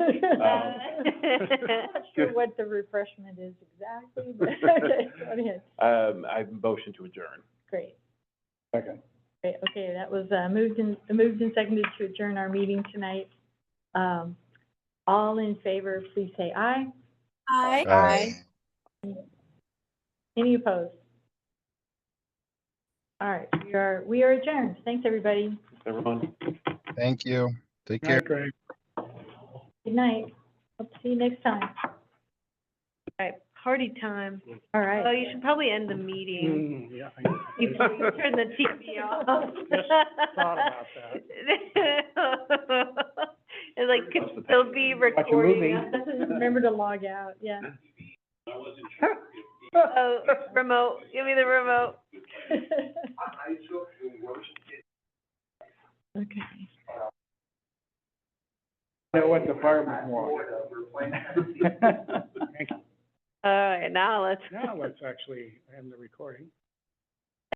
Um, I'm not sure what the refreshment is exactly, but that's what it is. Um, I motion to adjourn. Great, Second. great. Okay, that was, uh, moved and, moved and seconded to adjourn our meeting tonight. Um, all in favor, please say aye. Aye. Any opposed? All right, we are, we are adjourned. Thanks, everybody. Everyone? Thank you. Take care. Night, Greg. Good night. Hope to see you next time. All right, party time. All Oh, right. you should probably end the meeting. Mm, yeah, I- You can turn the TV off. Yes, thought about that. And like, Watch the could still be Watch a movie. recording. Remember to log out, yeah. Oh, remote, give me the remote. Okay. Know what the firemen want. All right, now let's. Now let's actually end the recording.